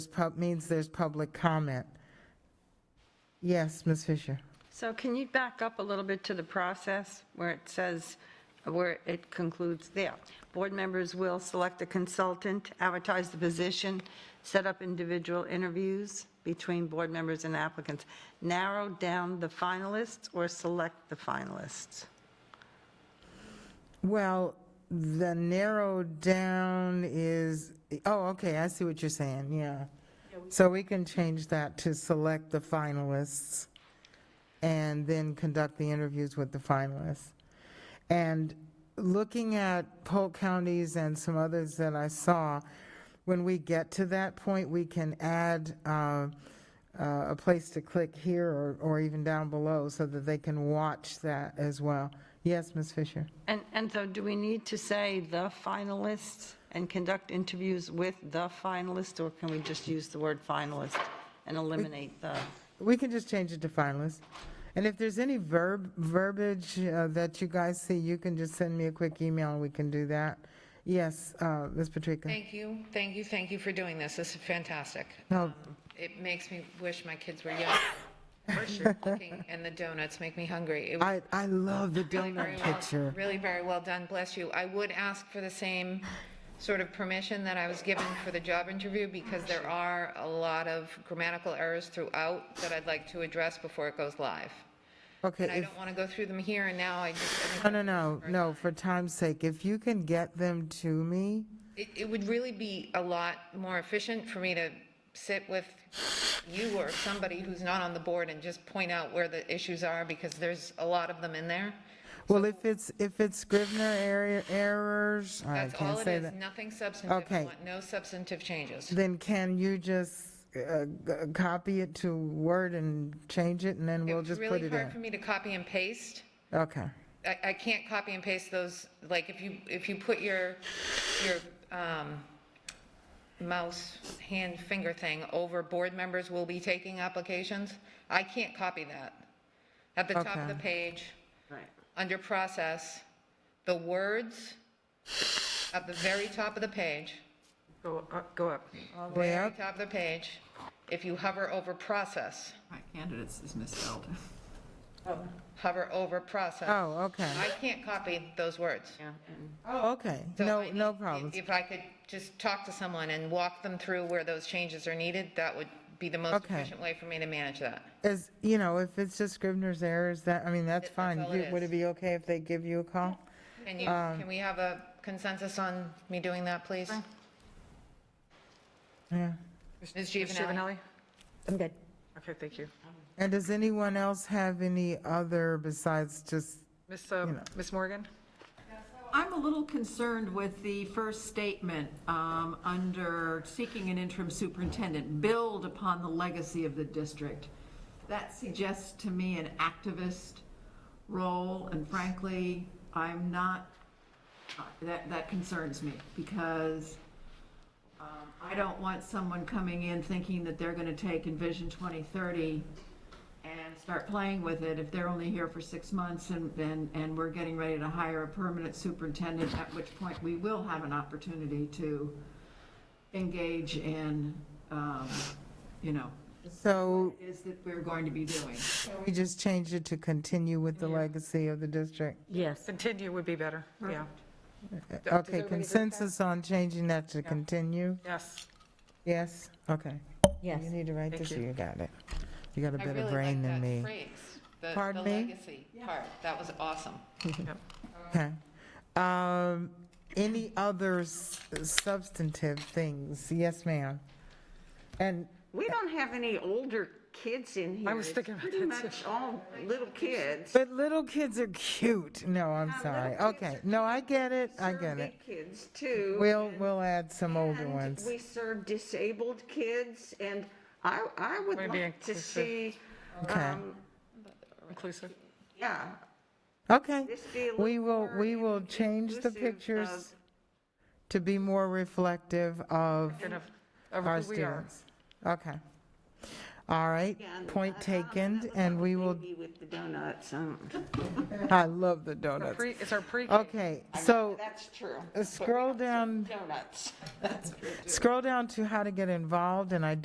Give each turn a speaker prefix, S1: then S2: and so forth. S1: pub- means there's public comment. Yes, Ms. Fisher.
S2: So can you back up a little bit to the process where it says, where it concludes there? Board members will select a consultant, advertise the position, set up individual interviews between board members and applicants, narrow down the finalists or select the finalists.
S1: Well, the narrow down is, oh, okay, I see what you're saying, yeah. So we can change that to select the finalists and then conduct the interviews with the finalists. And looking at Polk counties and some others that I saw, when we get to that point, we can add uh, uh, a place to click here or- or even down below so that they can watch that as well. Yes, Ms. Fisher?
S2: And, and so do we need to say the finalists and conduct interviews with the finalists? Or can we just use the word finalist and eliminate the?
S1: We can just change it to finalists. And if there's any verb, verbiage uh, that you guys see, you can just send me a quick email, and we can do that. Yes, uh, Ms. Patrica?
S3: Thank you, thank you, thank you for doing this. This is fantastic.
S1: No,
S3: It makes me wish my kids were young. The cooking And the donuts make me hungry. It was
S1: I, I love the
S3: really very
S1: donut
S3: well-
S1: picture.
S3: Really very well done, bless you. I would ask for the same sort of permission that I was given for the job interview because there are a lot of grammatical errors throughout that I'd like to address before it goes live.
S1: Okay,
S3: And I
S1: if,
S3: don't want to go through them here and now, I just. I think
S1: no, no, no, no, for time's sake, if you can get them to me,
S3: It, it would really be a lot more efficient for me to sit with you or somebody who's not on the board and just point out where the issues are, because there's a lot of them in there.
S1: well, if it's, if it's Scrivener area- errors, I
S3: That's all
S1: can't
S3: it
S1: say
S3: is,
S1: that.
S3: nothing substantive. I
S1: Okay.
S3: want No substantive changes.
S1: Then can you just uh, g- copy it to Word and change it, and then we'll just put
S3: It's really
S1: it
S3: hard for
S1: in?
S3: me to copy and paste.
S1: Okay.
S3: I, I can't copy and paste those, like, if you, if you put your, your um, mouse, hand, finger thing over board members will be taking applications, I can't copy that. At the top of the
S1: Okay.
S3: page,
S2: Right.
S3: under process, the words at the very top of the page,
S2: Go, go up.
S1: Way
S3: very
S1: up?
S3: top of the page, if you hover over process,
S4: My candidates is misspelled.
S3: hover over process,
S1: Oh, okay.
S3: I can't copy those words.
S1: Oh, okay.
S3: So
S1: No,
S3: I need-
S1: no
S3: if-
S1: problems.
S3: If I could just talk to someone and walk them through where those changes are needed, that would be the most
S1: Okay.
S3: efficient way for me to manage that.
S1: As, you know, if it's just Scrivener's errors, that, I mean, that's
S3: That's
S1: fine.
S3: all
S1: You-
S3: it
S1: Would
S3: is.
S1: it be okay if they give you a call?
S3: Can you,
S1: Um,
S3: can we have a consensus on me doing that, please?
S1: Yeah.
S3: Ms. Giovanelli?
S5: I'm good.
S6: Okay, thank you.
S1: And does anyone else have any other besides just,
S6: Miss uh, Miss Morgan?
S4: I'm a little concerned with the first statement, um, under seeking an interim superintendent, build upon the legacy of the district. That suggests to me an activist role, and frankly, I'm not, that, that concerns me, because um, I don't want someone coming in thinking that they're gonna take Envision 2030 and start playing with it if they're only here for six months and, and, and we're getting ready to hire a permanent superintendent, at which point we will have an opportunity to engage in, um, you know,
S1: so
S4: is that we're going to be doing.
S1: we just changed it to continue with the legacy of the district? Uh,
S5: Yes.
S6: Continue would be better, yeah.
S1: Okay, consensus on changing that to continue?
S6: Yes,
S1: Yes? Okay.
S5: Yes.
S1: You need to write
S6: Thank
S1: this, or
S6: you.
S1: you got it. You got a
S3: I
S1: better
S3: really
S1: brain
S3: like
S1: than
S3: that
S1: me.
S3: phrase, the-
S1: Pardon
S3: the
S1: me?
S3: legacy part. That was awesome.
S1: Okay. Um, Any other s- substantive things? Yes, ma'am. And
S7: We don't have any older kids in here.
S6: I was
S7: It's
S6: thinking about
S7: Pretty
S6: that,
S7: much all little kids.
S1: But little kids are cute. No, I'm sorry.
S7: little kids
S1: Okay,
S7: are
S1: no, I get it, I
S7: Serve
S1: get it.
S7: big kids too.
S1: We'll, we'll add some older
S7: And
S1: ones.
S7: We um, serve disabled kids and I, I would
S6: Wanna be
S7: like to
S6: inclusive.
S7: see,
S1: Okay,
S7: um,
S6: inclusive.
S7: yeah,
S1: okay.
S7: this be a
S1: We
S7: little
S1: will,
S7: more
S1: we will change the
S7: inclusive
S1: pictures
S7: of-
S1: to be more reflective of
S6: Kind of,
S1: our
S6: of who we are.
S1: students. Okay. All right,
S7: again.
S1: point
S7: I- I don't
S1: taken,
S7: have a
S1: and we will,
S7: baby With the donuts, um,
S1: I love the
S6: Our
S1: donuts.
S6: pre- It's our pre-K.
S1: Okay, so
S7: that's true.
S1: uh, scroll down,
S7: Donuts.
S1: scroll down to how to get involved, and I